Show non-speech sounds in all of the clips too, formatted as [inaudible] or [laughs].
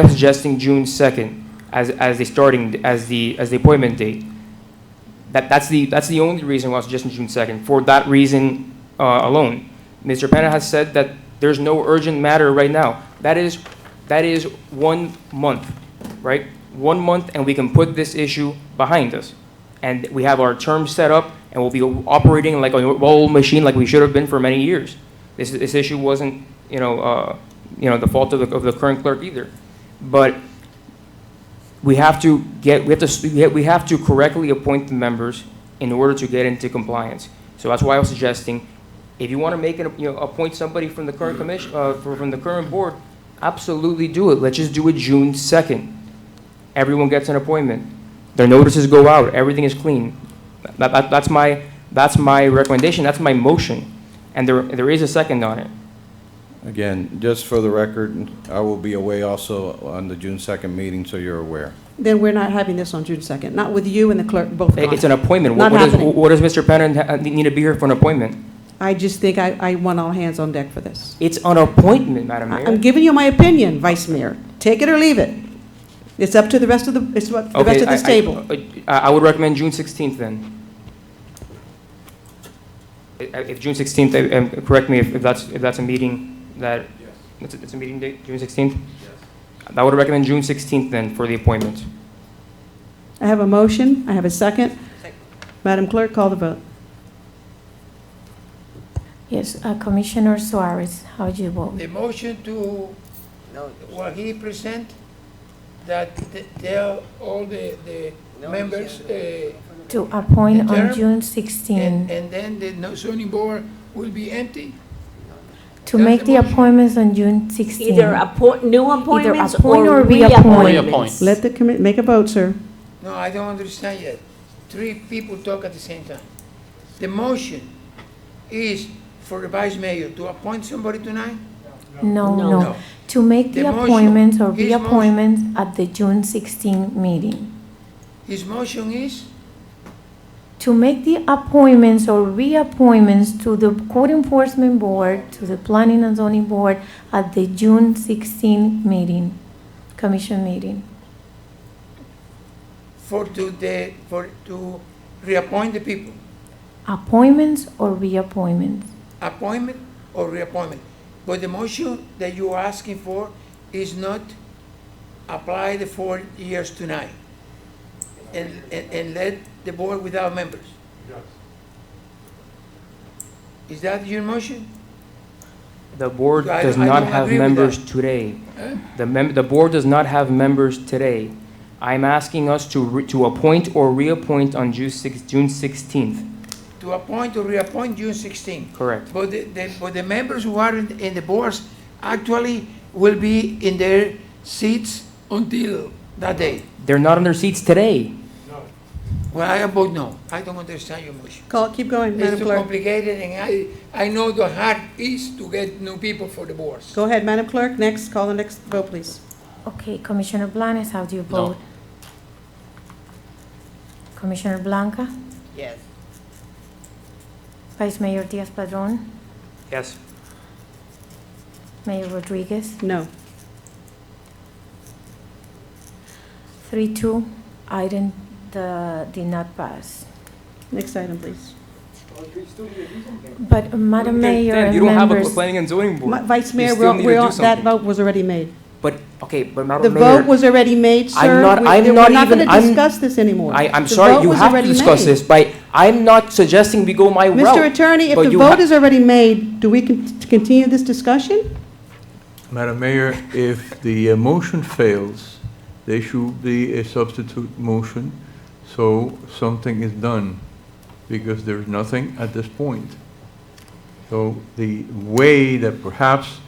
I'm suggesting June 2nd as, as the starting, as the, as the appointment date. That, that's the, that's the only reason why I'm suggesting June 2nd, for that reason uh, alone. Mr. Penna has said that there's no urgent matter right now. That is, that is one month, right? One month, and we can put this issue behind us. And we have our terms set up, and we'll be operating like a old machine like we should have been for many years. This, this issue wasn't, you know, uh, you know, the fault of the, of the current clerk either. But we have to get, we have to, we have- we have to correctly appoint the members in order to get into compliance. So that's why I was suggesting, if you want to make, an you know, appoint somebody from the current Mm-hmm. commission, uh, from from the current board, absolutely do it. Let's just do it June second. Everyone gets an appointment. Their notices go out, everything is clean. That, that, that's my, that's my recommendation, that's my motion. And there, there is a second on it. Again, just for the record, I will be away also on the June 2nd meeting, so you're aware. Then we're not having this on June 2nd, not with you and the clerk both It- gone. It's an appointment. What Not what does, happening. what does Mr. Pennon ha- need to be here for an appointment? I just think I, I want all hands on deck for this. It's an appointment, Madam I- I'm Mayor. giving you my opinion, Vice Mayor. Take it or leave it. It's up to the rest of the, it's up to the rest Okay, of I- this I- table. I I would recommend June 16th then. I- I- If June 16th, I- um, correct me if if that's, if that's a meeting that, it's a- it's a meeting date, June 16th? I would recommend June 16th then for the appointment. I have a motion, I have a second. Madam Clerk, call the vote. Yes, uh, Commissioner Suarez, how do you vote? The motion to, what he present, that th- tell all the, the members, uh, To appoint on Interim? June and, 16, and then the no- zoning board will be empty? to make the that's the appointments on June 16. Either appoint, new appointments appoint or or reappoint. reappointments. Let the commit, make a vote, sir. No, I don't understand yet. Three people talk at the same time. The motion is for the vice mayor to appoint somebody tonight? No, No. no, No. to make the The motion, appointments or his motion. reappointments at the June 16 meeting. His motion is, To make the appointments or reappointments to the Code Enforcement Board, to the Planning and Zoning Board at the June 16 meeting, commission meeting. for to the, for, to reappoint the people. Appointments or reappointments? appointment or reappointment. But the motion that you are asking for is not apply the four years tonight and, and, and let the board without members. Is that your motion? The board I- does I not don't have agree with members that. Eh? today. The mem, the board does not have members today. I'm asking us to, re- to appoint or reappoint on June six- June 16th, To appoint or reappoint June sixteen. correct? But the, the, but the members who are in, in the boards actually will be in their seats until that day. They're not on their seats today. Well, I vote no. I don't understand your motion. Call, keep going, Madam It's too Clerk. complicated, and I, I know the hard is to get new people for the boards. Go ahead, Madam Clerk, next, call the next vote, please. Okay, Commissioner Blanes, how do you vote? Commissioner Blanca? Yes. Vice Mayor Diaz-Padrón? Yes. Mayor Rodriguez? No. Three, two, item the, did not pass. Next item, please. But uh, Madam Mayor Dan, and You don't have a members, planning and zoning Ma- board. Vice You Mayor, still we're, need to we're do on- that something. vote was already made. But, okay, but The Madam vote Mayor, was already made, sir. I'm not- We- I'm we're not gonna even- I'm- discuss this anymore. I, I'm The sorry, vote you was have to already discuss made. this, but I'm not suggesting we go my route. Mr. Attorney, if but the you vote ha- is already made, do we con- continue this discussion? Madam Mayor, if the uh, motion fails, there should be a substitute motion, so something is done, because there's nothing at this point. So the way that perhaps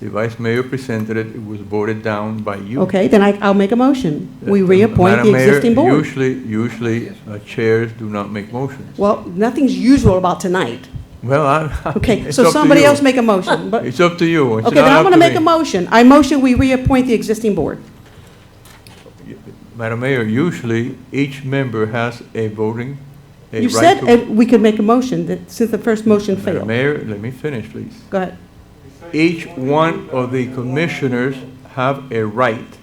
the Vice Mayor presented it, it was voted down by you. Okay, then I, I'll make a motion. We Uh, reappoint the Madam Mayor, existing board. Usually, usually uh, chairs do not make motions. Well, nothing's usual about tonight. Well, I. Okay, [laughs] it's so up to somebody you. else make a [laughs] motion, but, okay, It's up to you. It's then not I'm up gonna to make me. a motion. I motion we reappoint the existing board. Madam Mayor, usually each member has a voting, a You right said to... uh, we could make a motion that, since the first motion Madam failed. Mayor, let me finish, please. Go ahead. Each one of the commissioners have a right